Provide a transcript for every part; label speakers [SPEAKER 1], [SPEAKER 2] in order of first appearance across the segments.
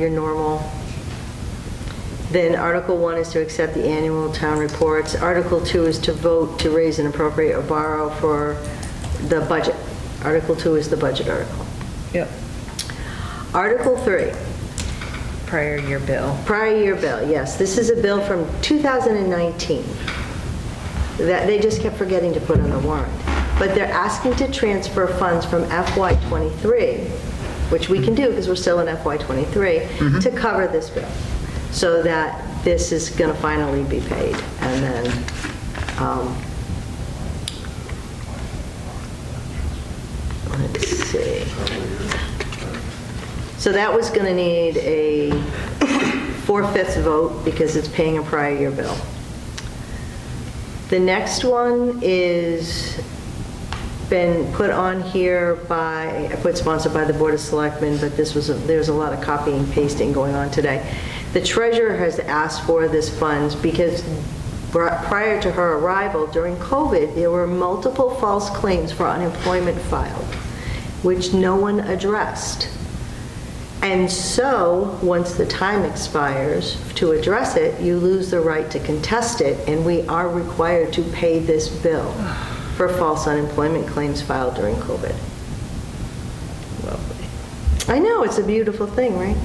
[SPEAKER 1] your normal. Then Article 1 is to accept the annual town reports. Article 2 is to vote to raise and appropriate or borrow for the budget. Article 2 is the budget article.
[SPEAKER 2] Yep.
[SPEAKER 1] Article 3,
[SPEAKER 2] Prior year bill.
[SPEAKER 1] prior year bill, yes, this is a bill from 2019 that they just kept forgetting to put on the warrant. But they're asking to transfer funds from FY '23, which we can do because we're still in FY '23, to cover this bill, so that this is going to finally be paid. And then, um, let's see. So that was going to need a four-fifths vote because it's paying a prior year bill. The next one is been put on here by, I put sponsored by the Board of Selectmen, but this was, a- there's a lot of copying and pasting going on today. The treasurer has asked for this funds because bri- prior to her arrival during COVID, there were multiple false claims for unemployment filed, which no one addressed. And so, once the time expires to address it, you lose the right to contest it, and we are required to pay this bill for false unemployment claims filed during COVID. I know, it's a beautiful thing, right?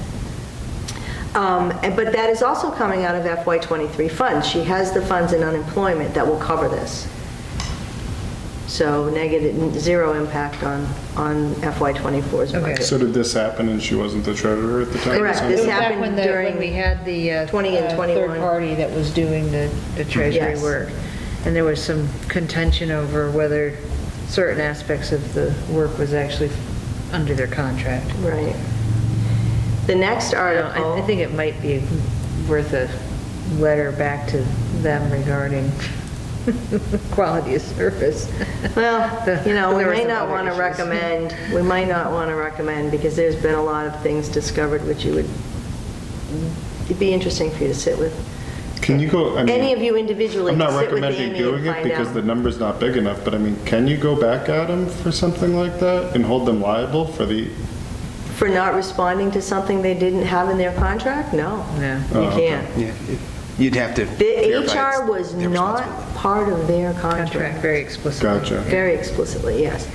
[SPEAKER 1] Um, and- But that is also coming out of FY '23 funds. She has the funds in unemployment that will cover this. So negative, zero impact on, on FY '24's
[SPEAKER 2] Okay.
[SPEAKER 1] budget.
[SPEAKER 3] So did this happen and she wasn't the treasurer at the time?
[SPEAKER 1] Correct,
[SPEAKER 3] So-
[SPEAKER 1] this
[SPEAKER 2] It was back
[SPEAKER 1] happened
[SPEAKER 2] when the-
[SPEAKER 1] during
[SPEAKER 2] When we had the. uh,
[SPEAKER 1] 20 and
[SPEAKER 2] uh,
[SPEAKER 1] 21.
[SPEAKER 2] Third party that was doing the the treasury
[SPEAKER 1] Yes.
[SPEAKER 2] work. And there was some contention over whether certain aspects of the work was actually under their contract.
[SPEAKER 1] Right. The next
[SPEAKER 2] Now,
[SPEAKER 1] article.
[SPEAKER 2] I I think it might be worth a letter back to them regarding quality of service.
[SPEAKER 1] Well, you know, we
[SPEAKER 2] There were
[SPEAKER 1] may
[SPEAKER 2] some
[SPEAKER 1] not
[SPEAKER 2] other
[SPEAKER 1] want to
[SPEAKER 2] issues.
[SPEAKER 1] recommend, we might not want to recommend, because there's been a lot of things discovered which you would, it'd be interesting for you to sit with.
[SPEAKER 3] Can you go, I mean.
[SPEAKER 1] Any of you individually
[SPEAKER 3] I'm
[SPEAKER 1] can
[SPEAKER 3] not
[SPEAKER 1] sit with
[SPEAKER 3] recommending
[SPEAKER 1] Amy and
[SPEAKER 3] doing it
[SPEAKER 1] find
[SPEAKER 3] because the
[SPEAKER 1] out.
[SPEAKER 3] number's not big enough, but I mean, can you go back at them for something like that and hold them liable for the,
[SPEAKER 1] For not responding to something they didn't have in their contract? No.
[SPEAKER 2] No.
[SPEAKER 1] You can't.
[SPEAKER 4] Yeah, it- You'd have to.
[SPEAKER 1] The
[SPEAKER 4] verify it's
[SPEAKER 1] HR was
[SPEAKER 4] their
[SPEAKER 1] not
[SPEAKER 4] responsibility.
[SPEAKER 1] part of their
[SPEAKER 2] Contract,
[SPEAKER 1] contract.
[SPEAKER 2] very explicitly.
[SPEAKER 3] gotcha.
[SPEAKER 1] Very explicitly, yes.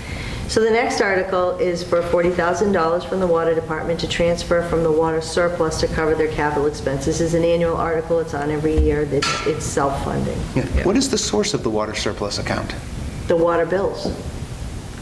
[SPEAKER 1] So the next article is for $40,000 from the Water Department to transfer from the water surplus to cover their capital expenses. This is an annual article, it's on every year, it's it's self-funding.
[SPEAKER 4] Yeah. What is the source of the water surplus account?
[SPEAKER 1] The water bills.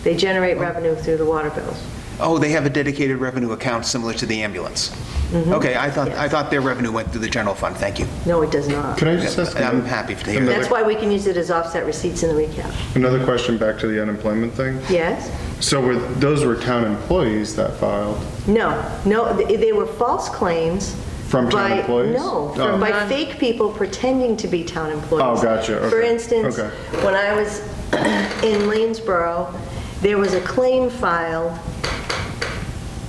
[SPEAKER 1] They generate revenue through the water bills.
[SPEAKER 4] Oh, they have a dedicated revenue account similar to the ambulance.
[SPEAKER 1] Mm-hmm.
[SPEAKER 4] Okay, I thought, I thought their revenue went through the general fund, thank you.
[SPEAKER 1] No, it does not.
[SPEAKER 3] Can I just ask?
[SPEAKER 4] I'm
[SPEAKER 3] another-
[SPEAKER 4] happy to hear
[SPEAKER 3] another-
[SPEAKER 1] That's why we can use it as offset receipts in the recap.
[SPEAKER 3] Another question back to the unemployment thing.
[SPEAKER 1] Yes?
[SPEAKER 3] So were, those were town employees that filed?
[SPEAKER 1] No, no, th- they were false claims.
[SPEAKER 3] From town
[SPEAKER 1] by-
[SPEAKER 3] employees?
[SPEAKER 1] No,
[SPEAKER 3] Oh.
[SPEAKER 1] from- by fake people pretending to be town employees.
[SPEAKER 3] Oh, gotcha,
[SPEAKER 1] For
[SPEAKER 3] okay,
[SPEAKER 1] instance,
[SPEAKER 3] okay.
[SPEAKER 1] when I was in Lanesboro, there was a claim filed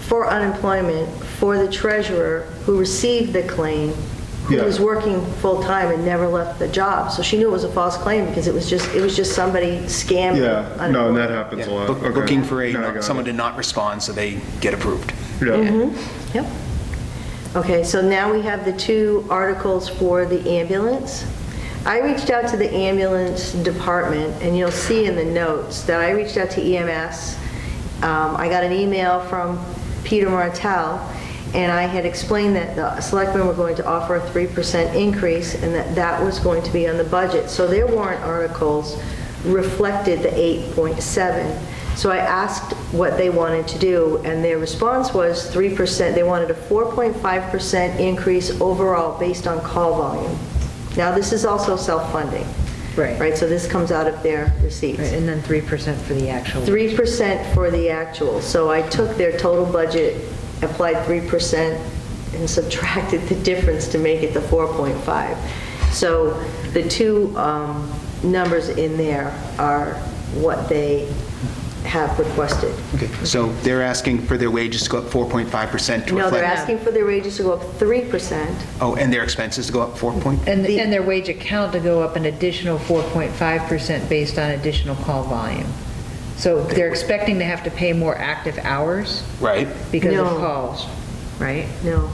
[SPEAKER 1] for unemployment for the treasurer who received the claim, who
[SPEAKER 3] Yeah.
[SPEAKER 1] was working full-time and never left the job. So she knew it was a false claim because it was just, it was just somebody scamming.
[SPEAKER 3] Yeah, no, and
[SPEAKER 1] unemployment.
[SPEAKER 3] that happens a lot.
[SPEAKER 4] Look-
[SPEAKER 3] Okay.
[SPEAKER 4] Looking for
[SPEAKER 3] No, I got
[SPEAKER 4] a,
[SPEAKER 3] it.
[SPEAKER 4] someone to not respond so they get approved.
[SPEAKER 1] Mm-hmm.
[SPEAKER 3] Yeah,
[SPEAKER 1] Yep. Okay, so now we have the two articles for the ambulance. I reached out to the ambulance department, and you'll see in the notes that I reached out to EMS. Um, I got an email from Peter Martell, and I had explained that the selectmen were going to offer a 3% increase, and that that was going to be on the budget. So their warrant articles reflected the 8.7. So I asked what they wanted to do, and their response was 3%, they wanted a 4.5% increase overall based on call volume. Now, this is also self-funding.
[SPEAKER 2] Right.
[SPEAKER 1] Right, so this comes out of their
[SPEAKER 2] Right,
[SPEAKER 1] receipts.
[SPEAKER 2] And then 3% for the actual.
[SPEAKER 1] 3% for the actual, so I took their total budget, applied 3%, and subtracted the difference to make it the 4.5. So the two um, numbers in there are what they have requested.
[SPEAKER 4] Okay, so they're asking for their wages to go up 4.5% to
[SPEAKER 1] No, they're
[SPEAKER 4] reflect.
[SPEAKER 1] asking for their wages to go up 3%.
[SPEAKER 4] Oh, and their expenses to go up 4 point?
[SPEAKER 2] And, and their wage account to go up an additional 4.5% based on additional call volume. So they're expecting to have to pay more active hours
[SPEAKER 4] Right.
[SPEAKER 2] because of
[SPEAKER 1] No.
[SPEAKER 2] calls, right?
[SPEAKER 1] No,